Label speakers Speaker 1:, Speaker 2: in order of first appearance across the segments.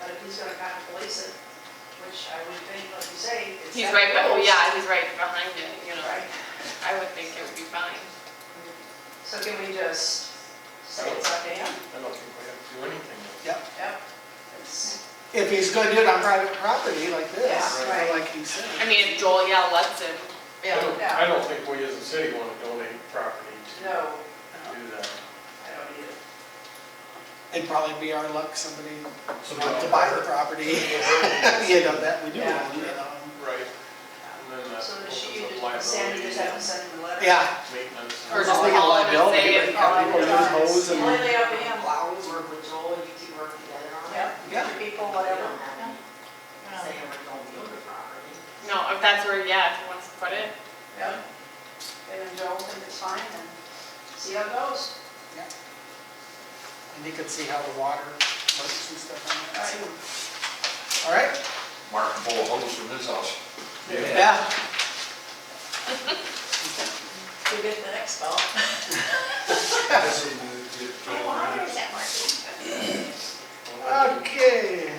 Speaker 1: but if he's gonna kind of police it, which I would think, like you say, it's.
Speaker 2: He's
Speaker 1: that
Speaker 2: right, be- oh
Speaker 1: close,
Speaker 2: yeah, he's right behind it, you know,
Speaker 1: Right,
Speaker 2: I would think it would be fine.
Speaker 1: so can we just say it's up to him?
Speaker 3: I don't think we have to do anything.
Speaker 1: Yep. It's-
Speaker 4: If he's gonna do it on private property like this,
Speaker 1: Yeah, right.
Speaker 4: or like he said.
Speaker 2: I mean, if Joel, yeah, lets him,
Speaker 3: I don't,
Speaker 1: Yeah.
Speaker 3: I don't think we as a city want to donate property to
Speaker 1: No,
Speaker 3: do that.
Speaker 1: I don't need it.
Speaker 4: It'd probably be our luck, somebody want to buy the property, you know, that we do,
Speaker 1: Yeah.
Speaker 4: own, you know.
Speaker 3: Right, and then
Speaker 1: Um,
Speaker 3: that
Speaker 1: So does
Speaker 3: opens
Speaker 1: she,
Speaker 3: up
Speaker 1: just- Sandy
Speaker 3: liability,
Speaker 1: just have to send him the letter?
Speaker 4: Yeah.
Speaker 3: maintenance.
Speaker 2: Or
Speaker 4: It's
Speaker 2: just
Speaker 4: like a
Speaker 2: call him and
Speaker 4: liability,
Speaker 2: say
Speaker 4: like,
Speaker 2: it,
Speaker 4: have
Speaker 2: call
Speaker 4: people
Speaker 2: him.
Speaker 4: use hose and-
Speaker 1: Only up to him,
Speaker 5: Well, we work with Joel, you two work together on it.
Speaker 1: yep,
Speaker 4: Yeah.
Speaker 1: your people,
Speaker 5: They
Speaker 1: whatever.
Speaker 5: don't have to
Speaker 1: Um,
Speaker 5: say we're going to build a property.
Speaker 2: no, if that's where, yeah, if he wants to put it,
Speaker 1: Yeah. And Joel think it's fine and see how it goes.
Speaker 4: And you can see how the water works and stuff on that
Speaker 1: Right.
Speaker 4: too. All right?
Speaker 6: Mark can pull a hose from his house.
Speaker 3: Yeah.
Speaker 4: Yeah.
Speaker 1: We'll get the next call.
Speaker 3: Well, I think
Speaker 4: Okay.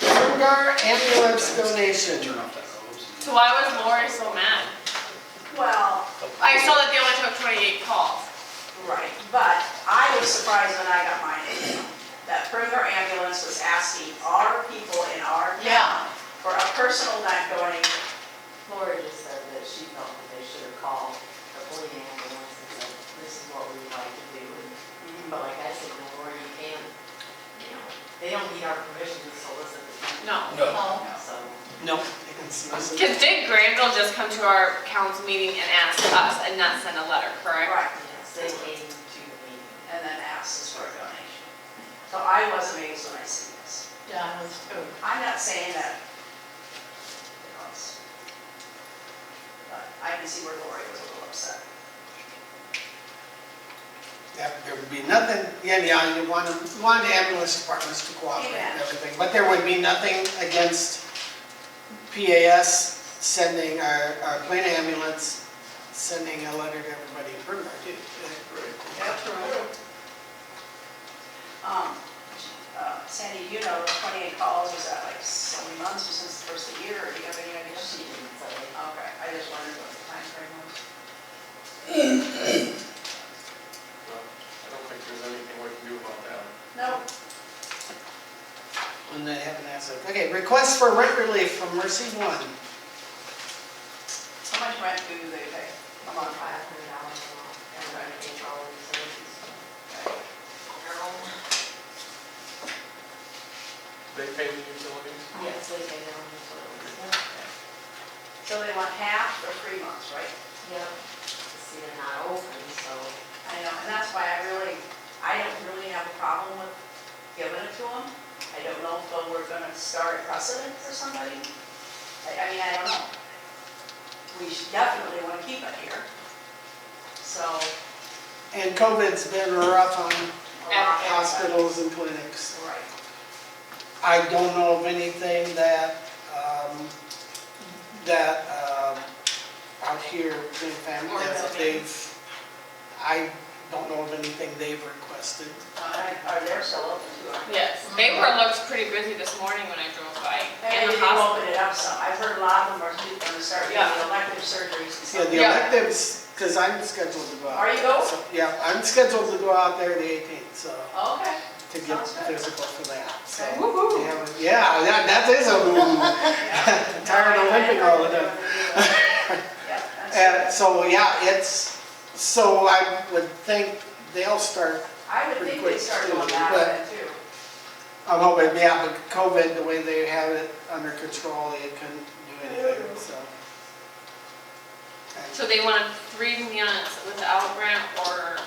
Speaker 4: Bergar ambulance donation. Turn off that
Speaker 2: so why was Lori so mad?
Speaker 1: Well,
Speaker 2: I saw that they only took twenty-eight calls,
Speaker 1: right, but I was surprised when I got mine. That Perimeter Ambulance was asking our people in our
Speaker 2: Yeah.
Speaker 1: town for a personal not going,
Speaker 5: Laura just said that she felt that they should have called the police ambulance and said, this is what we'd like to do.
Speaker 1: Mm-hmm.
Speaker 5: But like I said, no, Laura, you can't, you know, they don't need our permission to solicit the people.
Speaker 2: no.
Speaker 6: No.
Speaker 5: So,
Speaker 4: No. You can see this.
Speaker 2: Cause did Granville just come to our council meeting and ask us and not send a letter, correct?
Speaker 1: right,
Speaker 5: yes, they came to the meeting.
Speaker 1: and then asked us for a donation. So I was amazed when I see this.
Speaker 5: Yeah, I was too.
Speaker 1: I'm not saying that, you know, it's- but I can see where Lori was a little upset.
Speaker 4: That There would be nothing, yeah, yeah, you want, you want the ambulance departments to cooperate and
Speaker 1: Yeah.
Speaker 4: everything, but there would be nothing against PAS sending our, our plane ambulance, sending a letter to everybody in Bernard, too.
Speaker 1: Yep, true. Um, uh, Sandy, you know, twenty-eight calls, was that like so many months or since the first of the year, or do you have any idea?
Speaker 5: She didn't say.
Speaker 1: Okay, I just wondered what the timeframe was.
Speaker 3: there's anything we can do about that.
Speaker 1: No,
Speaker 4: And they haven't answered. Okay, request for rent relief from Mercy One.
Speaker 1: how much rent do they pay a
Speaker 5: About
Speaker 1: month?
Speaker 5: five hundred dollars a month, everybody gets all the services.
Speaker 3: They pay the utilities?
Speaker 5: Yes, they pay their own utilities.
Speaker 1: So they want half for three months, right?
Speaker 5: Yeah, see, they're not open, so.
Speaker 1: I know, and that's why I really, I don't really have a problem with giving it to them. I don't know if uh, we're gonna start precedent for somebody. I, I mean, I don't know. We should definitely wanna keep it here. So,
Speaker 4: And COVID's been rough on
Speaker 1: a lot of-
Speaker 4: hospitals and clinics.
Speaker 1: Right,
Speaker 4: I don't know of anything that, um, that, um, out here, in family, that they've, I don't know of anything they've requested.
Speaker 1: Uh, are they still open to it?
Speaker 2: Yes, they were, looked pretty busy this morning when I drove by. And
Speaker 1: Maybe
Speaker 2: the
Speaker 1: they
Speaker 2: hospital.
Speaker 1: open it up some. I've heard a lot of them are gonna start doing
Speaker 2: Yeah.
Speaker 1: elective surgeries and
Speaker 4: Yeah,
Speaker 1: stuff.
Speaker 4: the
Speaker 2: Yeah.
Speaker 4: electives, because I'm scheduled to go out.
Speaker 1: Are you going?
Speaker 4: So, Yeah, I'm scheduled to go out there the 18th, so,
Speaker 1: Oh, Okay.
Speaker 4: to get
Speaker 1: Sounds good.
Speaker 4: physical for that, so.
Speaker 1: Okay.
Speaker 2: Woo-hoo.
Speaker 4: Yeah, but- Yeah, that, that is a woo.
Speaker 1: Yeah.
Speaker 4: Tired of limping all the time.
Speaker 1: Yeah, that's-
Speaker 4: And so, yeah, it's, so I would think they'll start
Speaker 1: I would think they start doing that then too.
Speaker 4: I'm hoping, yeah, but COVID, the way they have it under control, they couldn't do anything, so.
Speaker 2: So they wanted three units without rent or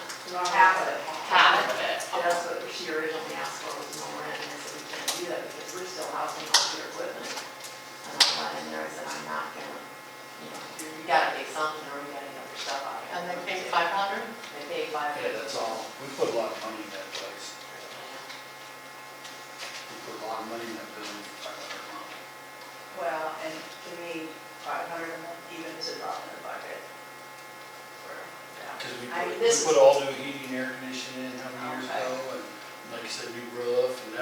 Speaker 1: Half of it.
Speaker 2: half of it?
Speaker 5: And that's what she originally asked for was no rent, and I said, we can't do that because we're still housing all your equipment. And I went in there and said, I'm not gonna, you know, you gotta pay something or you gotta get your stuff out. And they paid five hundred? They paid five
Speaker 7: Yeah,
Speaker 5: hundred.
Speaker 7: that's all. We put a lot of money in that place. We put a lot of money in that building for five hundred a month.
Speaker 1: Well, and to me, five hundred a month even is a drop in the bucket. For, yeah.
Speaker 7: Because we
Speaker 1: I mean,
Speaker 7: put, we
Speaker 1: this-
Speaker 7: put all new heating and air conditioning in how many years
Speaker 1: Okay.
Speaker 7: ago, and like you said, new roof, and that